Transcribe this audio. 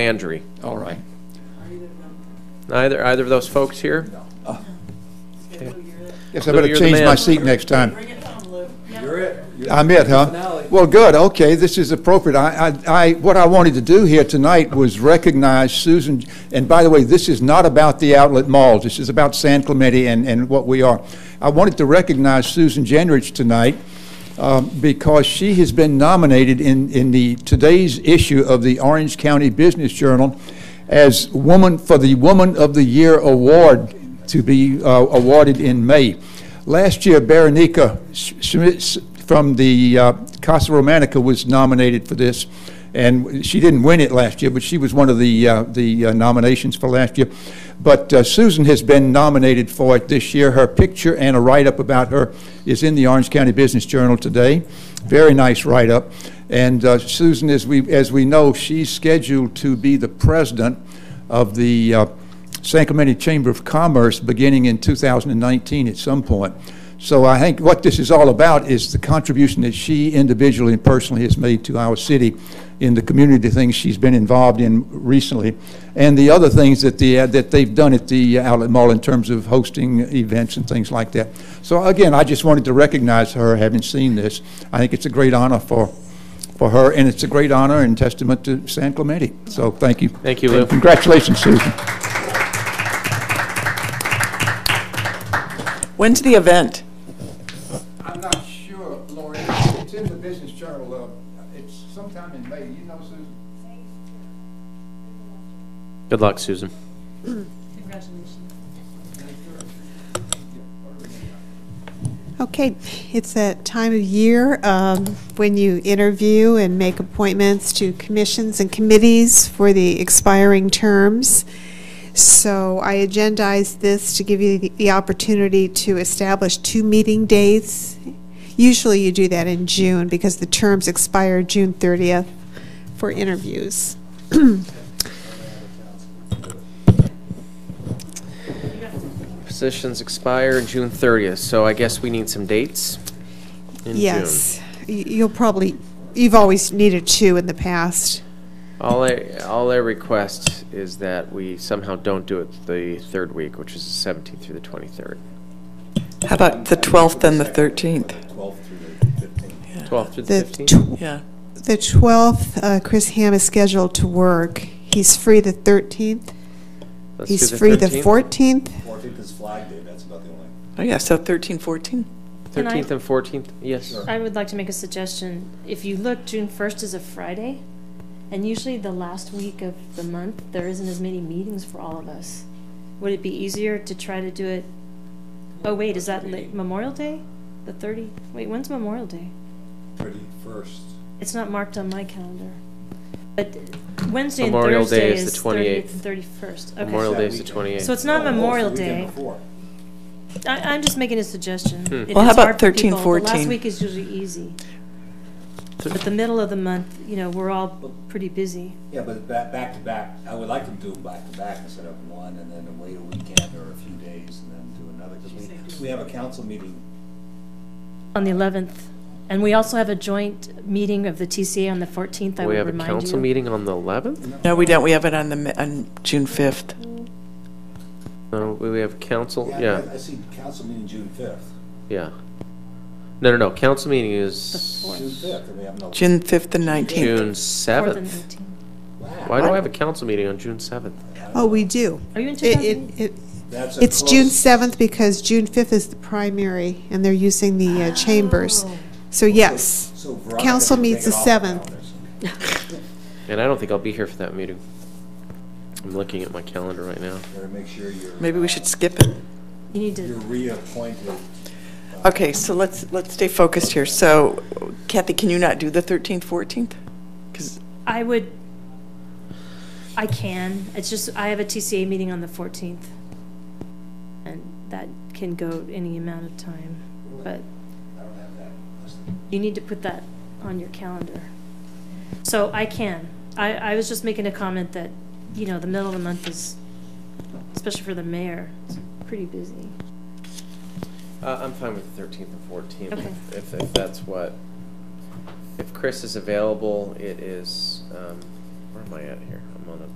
Landry. All right. Either, either of those folks here? Guess I Lou, better you're the change my man. seat next time. Bring it home, Lou. I'm it, huh? Well, good, okay, this is appropriate. I, I, I- what I wanted to do here tonight was recognize Susan, and by the way, this is not about the outlet malls, this is about San Clemente and, and what we are. I wanted to recognize Susan Jenrich tonight um, because she has been nominated in, in the, today's issue of the Orange County Business Journal as woman, for the Woman of the Year Award to be uh, awarded in May. Last year, Berenica Schmitz from the uh, Casa Romanica was nominated for this, and she didn't win it last year, but she was one of the, uh, the uh, nominations for last year. But uh, Susan has been nominated for it this year. Her picture and a write-up about her is in the Orange County Business Journal today. Very nice write-up. And uh, Susan, as we, as we know, she's scheduled to be the president of the uh, San Clemente Chamber of Commerce beginning in 2019 at some point. So I think what this is all about is the contribution that she individually and personally has made to our city in the community things she's been involved in recently, and the other things that the, uh, that they've done at the uh, Outlet Mall in terms of hosting events and things like that. So again, I just wanted to recognize her, having seen this. I think it's a great honor for, for her, and it's a great honor and testament to San Clemente. So thank you. Thank you, Lou. And Congratulations, Susan. When's the event? I'm not sure, Lori, it's in the Business Journal, uh, it's sometime in May, you know, Susan? Good luck, Susan. Okay, it's that time of year um, when you interview and make appointments to commissions and committees for the expiring terms. So I agendized this to give you the- the opportunity to establish two meeting dates. Usually you do that in June because the terms expire June 30th for interviews. Positions expire June 30th, so I guess we need some dates in June. Yes, Y- you'll probably, you've always needed two in the past. All I, all I request is that we somehow don't do it the third week, which is the 17th through the 23rd. How about the 12th and the 13th? 12th through the The 15th? tw- Yeah. The 12th, uh, Chris Ham is scheduled to work. He's free the 13th. Let's do He's free the 13th. 14th. Fourteenth is Flag Day, that's about the only. Oh, yeah, so 13, 14. 13th and 14th, yes. I would like to make a suggestion. If you look, June first is a Friday, and usually the last week of the month, there isn't as many meetings for all of us. Would it be easier to try to do it? Oh, wait, is that late Memorial Day? The thirty, wait, when's Memorial Day? Thirty-first. It's not marked on my calendar. But Wednesday and Memorial Day Thursday is the is thirtieth 28th. and thirty-first. Memorial Okay. Day is the 28th. So it's not Memorial Day. before. I, I'm just making a suggestion. Hmm. If Well, how it's about hard for 13, people, The 14? last week is usually easy. But the middle of the month, you know, we're all pretty busy. Yeah, but back, back to back, I would like to do them back to back instead of one and then wait a weekend or a few days and then do another. 'cause we, we have a council meeting. On the 11th, and we also have a joint meeting of the TCA on the 14th, I We would have a remind you. council meeting on the 11th? No, we don't, we have it on the, mi- on June 5th. No, we we have council, I- yeah, I see council meeting June fifth. yeah. No, no, no, council meeting June is fifth, and we have no. June 5th and 19th. June Fourth 7th. and 18th. Why do I have a council meeting on June 7th? Oh, we do. Are you in It- 2000? it- it- That's a It's June close. 7th because June 5th is the primary, and they're using the uh, chambers. So yes, So Veronica council can meets take the it off 7th. calendars. And I don't think I'll be here for that meeting. I'm looking at my calendar right now. Better make sure you're. uh, Maybe we should skip it. You need You're to, reappointed. Okay, so let's, let's stay focused here. So Kathy, can you not do the 13th, 14th? Because, I would, I can, it's just, I have a TCA meeting on the 14th, and that can go any amount of time, but I don't have that listed. you need to put that on your calendar. So I can. I, I was just making a comment that, you know, the middle of the month is, especially for the mayor, it's pretty busy. Uh, I'm fine with the 13th and 14th. Okay. If, if that's what, if Chris is available, it is, um, where am I at here? I'm I'm on a